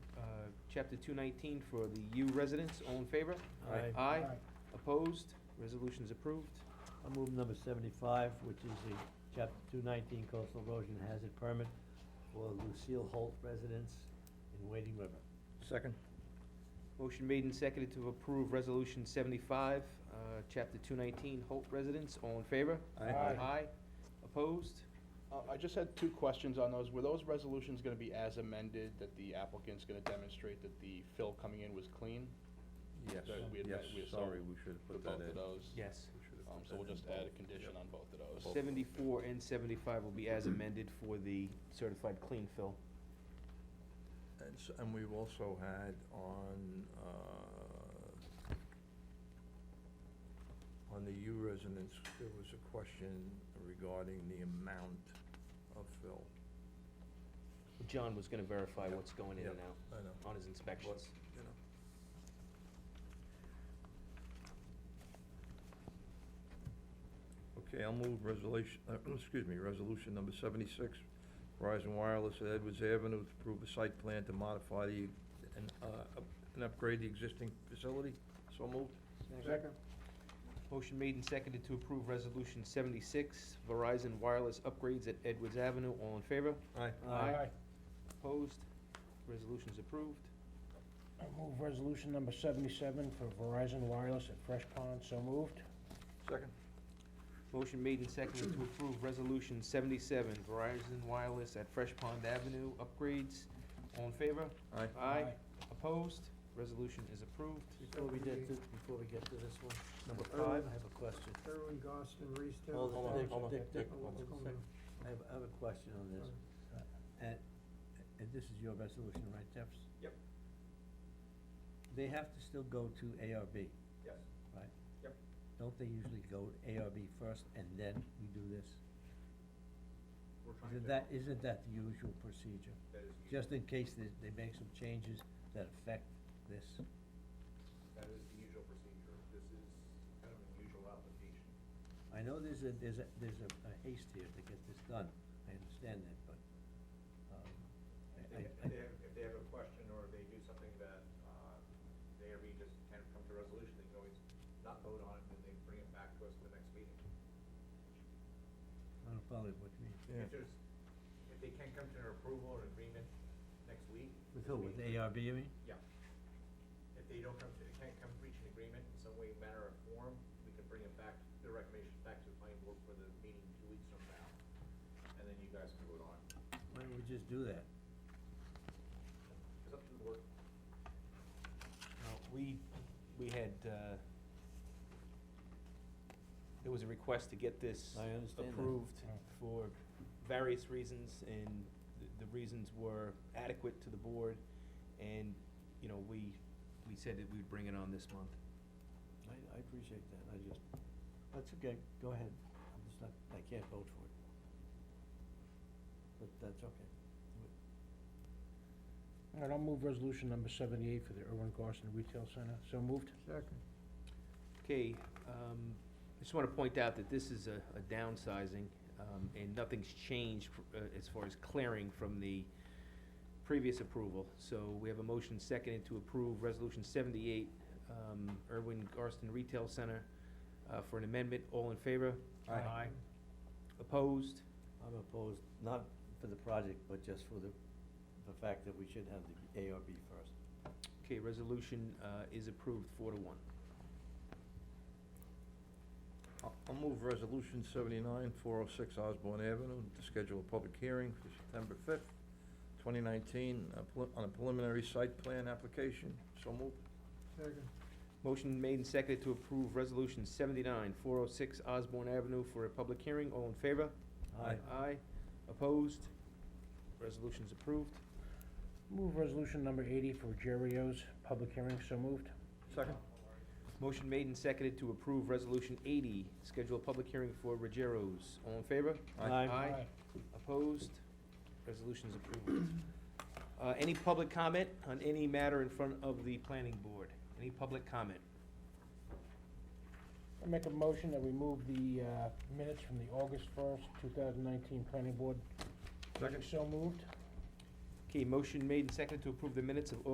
uh, Chapter 219 for the U residents. All in favor? Aye. Aye. Opposed? Resolution's approved. I'll move number seventy-five, which is the chapter two nineteen coastal erosion hazard permit for Lucille Holt residence in Wading River. Second. Motion made and seconded to approve Resolution 75, uh, Chapter 219, Holt residents. All in favor? Aye. Aye. Opposed? Uh, I just had two questions on those. Were those resolutions gonna be as amended, that the applicant's gonna demonstrate that the fill coming in was clean? Yes, That we had yes, met- we had sorry, sold we should have For put that both in. of those? Yes. We should have Um, put so we'll that in just add a both. condition on both of those. 74 and 75 will be as amended for the certified clean fill. And s- And we've also had on, uh, on the U residents, there was a question regarding the amount of fill. John was gonna verify Yep. what's going in and Yep, out I know. on his inspections. You know. Okay, I'll move resolution, uh, excuse me, resolution number seventy-six, Verizon Wireless at Edwards Avenue to approve a site plan to modify the, and, uh, up- and upgrade the existing facility. So moved. Second. Motion made and seconded to approve Resolution seventy-six, Verizon wireless upgrades at Edwards Avenue. All in favor? Aye. Aye. Opposed? Resolution's approved. I move resolution number seventy-seven for Verizon Wireless at Fresh Pond, so moved. Second. Motion made and seconded to approve Resolution seventy-seven, Verizon wireless at Fresh Pond Avenue upgrades. All in favor? Aye. Aye. Opposed? Resolution is approved. Before we get to, before we get to this one, number Oh. five, I have a question. Irwin, Goffstown, Reestown. Hold on, Dick, hold on, Dick, Dick, Dick, hold on a hold on. second. I have, I have a question on this. And, and this is your resolution, right, Jeffs? Yep. They have to still go to ARB, Yes, right? Yep. Don't they usually go to ARB first and then we do this? we're trying to. Isn't that, isn't that the usual procedure? That is, the- Just in case they, they make some changes that affect this. that is the usual procedure. This is kind of an unusual application. I know there's a, there's a, there's a a haste here to get this done, I understand that, but, um, If I, they, I- if they have, if they have a question or they do something that, uh, they or we just can't come to resolution, they can always not vote on it and they bring it back to us at the next meeting. I don't follow what you mean. Yeah. If there's, if they can't come to an approval or agreement next week. With who, with we- ARB, you mean? Yeah. If they don't come to, they can't come reach an agreement in some way, manner or form, we can bring it back, the recommendation back to the planning board for the meeting two weeks from now. And then you guys can vote on it. Why don't we just do that? It's up to the board. Now, Uh, We, we had, uh, there was a request to get this I understand that. approved Mm. for various reasons, and th- the reasons were adequate to the board, and, you know, we, we said that we'd bring it on this month. I, I appreciate that, I just, that's okay, go ahead, I'm just not, I can't vote for it. But that's okay. All right, I'll move resolution number seventy-eight for the Irwin Goffstown Retail Center, so moved. Second. Okay, um, I just wanna point out that this is a, a downsizing, um, and nothing's changed, fr- uh, as far as clearing from the previous approval. So we have a motion seconded to approve Resolution seventy-eight, um, Irwin Garston Retail Center, uh, for an amendment. All in favor? Aye. Aye. Opposed? I'm opposed, not for the project, but just for the, the fact that we should have the ARB first. Okay, resolution, uh, is approved four to one. I'll I'll move resolution seventy-nine, four oh six Osborne Avenue, to schedule a public hearing for September fifth, twenty nineteen, on a preliminary site plan application. So moved. Second. Motion made and seconded to approve Resolution seventy-nine, four oh six Osborne Avenue for a public hearing. All in favor? Aye. Aye. Opposed? Resolution's approved. Move resolution number eighty for Jerio's public hearing, so moved. Second. Motion made and seconded to approve Resolution eighty, schedule a public hearing for Rogero's. All in favor? Aye. Aye. Opposed? Resolution's approved. Uh, any public comment on any matter in front of the planning board? Any public comment? I make a motion that we move the, uh, minutes from the August first, two thousand nineteen planning board. meeting, Second. So moved. Okay, motion made and seconded to approve the minutes of